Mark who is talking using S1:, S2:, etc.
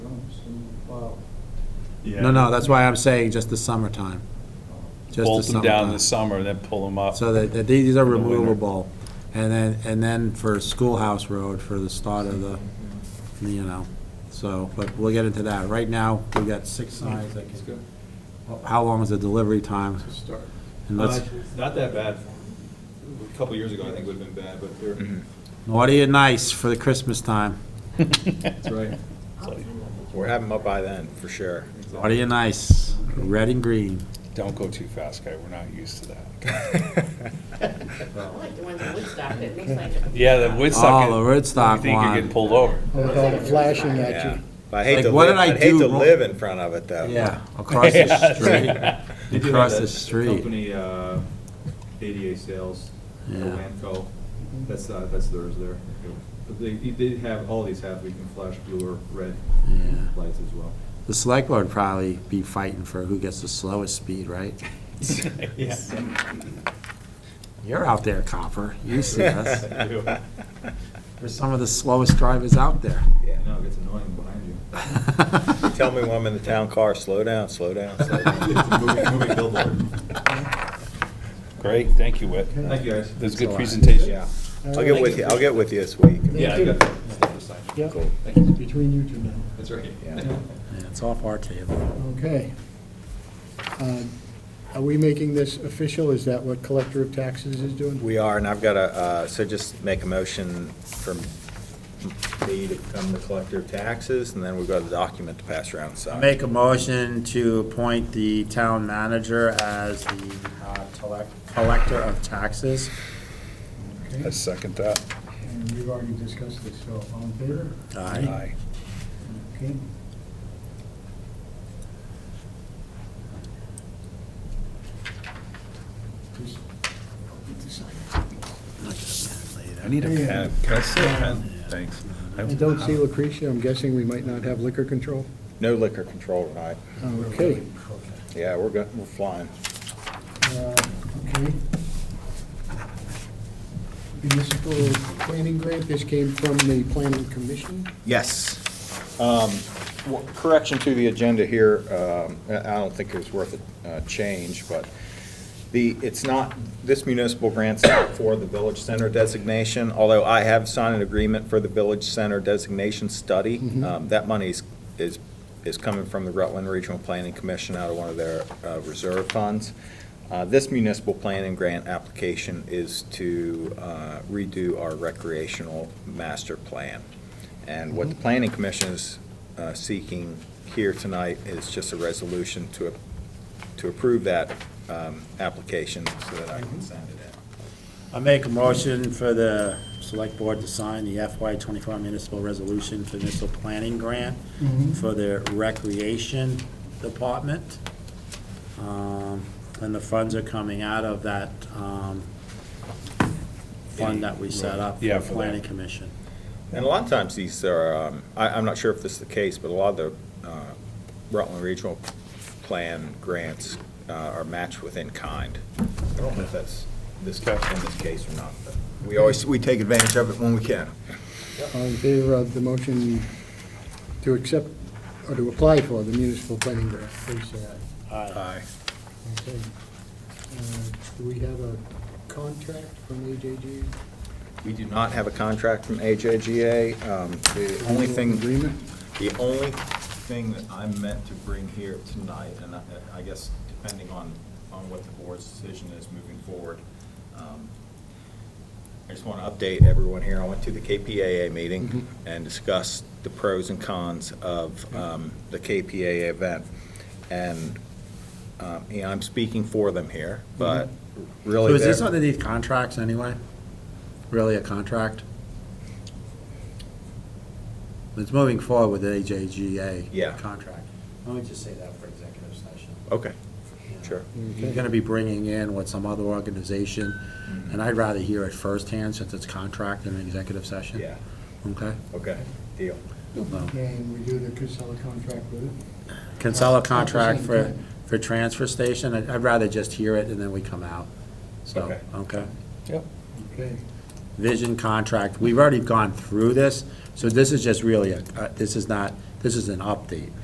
S1: Oh,
S2: Yeah.
S3: No, no, that's why I'm saying just the summertime. Just the
S2: Bolt them down in
S3: summertime.
S2: the summer and then pull them up.
S3: So that, that these are
S2: In the winter.
S3: removable. And then, and then for Schoolhouse Road for the start of the, you know, so, but we'll get into that. Right now, we've got six signs that
S4: It's
S3: can,
S4: Mm-hmm. good.
S3: how long is the delivery time?
S4: Good start.
S3: And let's,
S4: Uh, Not that bad. A couple years ago, I think it would have been bad, but they're,
S2: Mm-hmm.
S3: naughty and nice for the Christmas time.
S4: that's right.
S5: We're having them up by then, for sure.
S3: Naughty and nice, red and green.
S2: Don't go too fast, guy, we're not used to that.
S6: I like the ones in Woodstock that looks like. a-
S2: Yeah, the Woodstock.
S3: Oh, the Woodstock
S2: You think you're
S3: one.
S2: getting pulled over.
S6: Looks like a
S1: flashing
S6: Woodstock.
S1: at
S5: Yeah.
S1: you.
S5: But I hate
S3: Like,
S5: to
S3: what
S5: live,
S3: did I
S5: I'd hate
S3: do
S5: to
S3: wrong?
S5: live in front of it, though.
S3: Yeah, across the
S2: Yeah.
S4: They
S3: street,
S4: do have
S3: across
S4: that
S3: the street.
S4: Company, uh, ADA Sales,
S3: Yeah.
S4: Colanco, that's, uh, that's theirs there. But they, they have, all these have, we can flash blue or red
S3: Yeah.
S4: lights as well.
S3: The select board would probably be fighting for who gets the slowest speed, right?
S4: Yes.
S3: You're out there, copper, you see us.
S4: I do.
S3: We're some of the slowest drivers out there.
S5: Yeah.
S4: No, it gets annoying behind you.
S5: You Tell me when I'm in the town car, slow down, slow down, slow down.
S4: It's a moving, moving billboard.
S2: Great, thank you, Whit.
S4: Thank you, guys.
S2: That was a good
S3: Alright.
S2: presentation.
S5: Yeah. I'll get with you, I'll get with you this week.
S4: Yeah, I got stuff to sign.
S1: Yeah,
S5: Cool.
S1: between you two now.
S4: That's right.
S5: Yeah.
S3: Yeah, It's off our table.
S1: Okay. Uh, Are we making this official? Is that what collector of taxes is doing?
S5: We are, and I've got a, uh, so just make a motion from me to become the collector of taxes, and then we've got a document to pass around, so.
S3: Make a motion to appoint the town manager as the uh, collect- collector of taxes.
S2: I second that.
S1: And we've already discussed this, so all in favor?
S3: Aye.
S2: Aye.
S1: Okay. Just-
S3: Later.
S2: I need a
S1: Yeah.
S2: pen. Can I see a pen? Thanks.
S1: I don't see Lucretia, I'm guessing we might not have liquor control.
S5: No liquor control tonight.
S1: Okay.
S5: Yeah, we're good, we're flying.
S1: Uh, Okay. Municipal planning grant, this came from the planning commission.
S5: Yes. Um, w- Correction to the agenda here, um, I I don't think it was worth a uh, change, but the, it's not, this municipal grant's not for the Village Center designation, although I have signed an agreement for the Village Center designation study. Um, That money's, is, is coming from the Rutland Regional Planning Commission out of one of their uh, reserve funds. Uh, This municipal planning grant application is to uh, redo our recreational master plan. And what the planning commission is uh, seeking here tonight is just a resolution to, to approve that um, application so that I can send it in.
S3: I make a motion for the select board to sign the FY twenty-four municipal resolution for municipal planning grant for the recreation department. Um, And the funds are coming out of that um, fund that we set up for
S2: Yeah,
S3: the
S2: for that.
S3: planning commission.
S5: And a lot of times these are, um, I, I'm not sure if this is the case, but a lot of the uh, Rutland Regional Plan grants uh, are matched with in kind. I don't know if that's this, in this case or not, but we always, we take advantage of it when we can.
S1: All in favor of uh, the motion to accept or to apply for the municipal planning grant, please say aye.
S5: Aye.
S1: Okay. Uh, Do we have a contract from AJG?
S5: We do not have a contract from AJGA. Um, The only thing.
S1: Agreement?
S5: The only thing that I meant to bring here tonight, and I- I guess depending on, on what the board's decision is moving forward, um, I just want to update everyone here. I went to the KPAA meeting and discussed the pros and cons of um, the KPAA event. And, um, you know, I'm speaking for them here, but
S3: So
S5: really.
S3: is this
S5: they're-
S3: underneath contracts anyway? Really a contract? It's moving forward with the AJGA.
S5: Yeah.
S3: Contract. Let me just say that for executive session.
S5: Okay, sure.
S3: You're gonna be bringing in what some other organization,
S5: Mm-hmm.
S3: and I'd rather hear it firsthand since it's contract in an executive session.
S5: Yeah,
S3: Okay? Um,
S5: okay, deal.
S3: No.
S1: And we do the Casella contract with it?
S3: Consella
S1: That's the
S3: contract
S1: same
S3: for,
S1: thing.
S3: for transfer station, I'd I'd rather just hear it and then we come out. So,
S5: Okay.
S3: okay?
S1: Okay.
S3: Vision contract, we've already gone through this, so this is just really, a- uh, this is not, this is an update.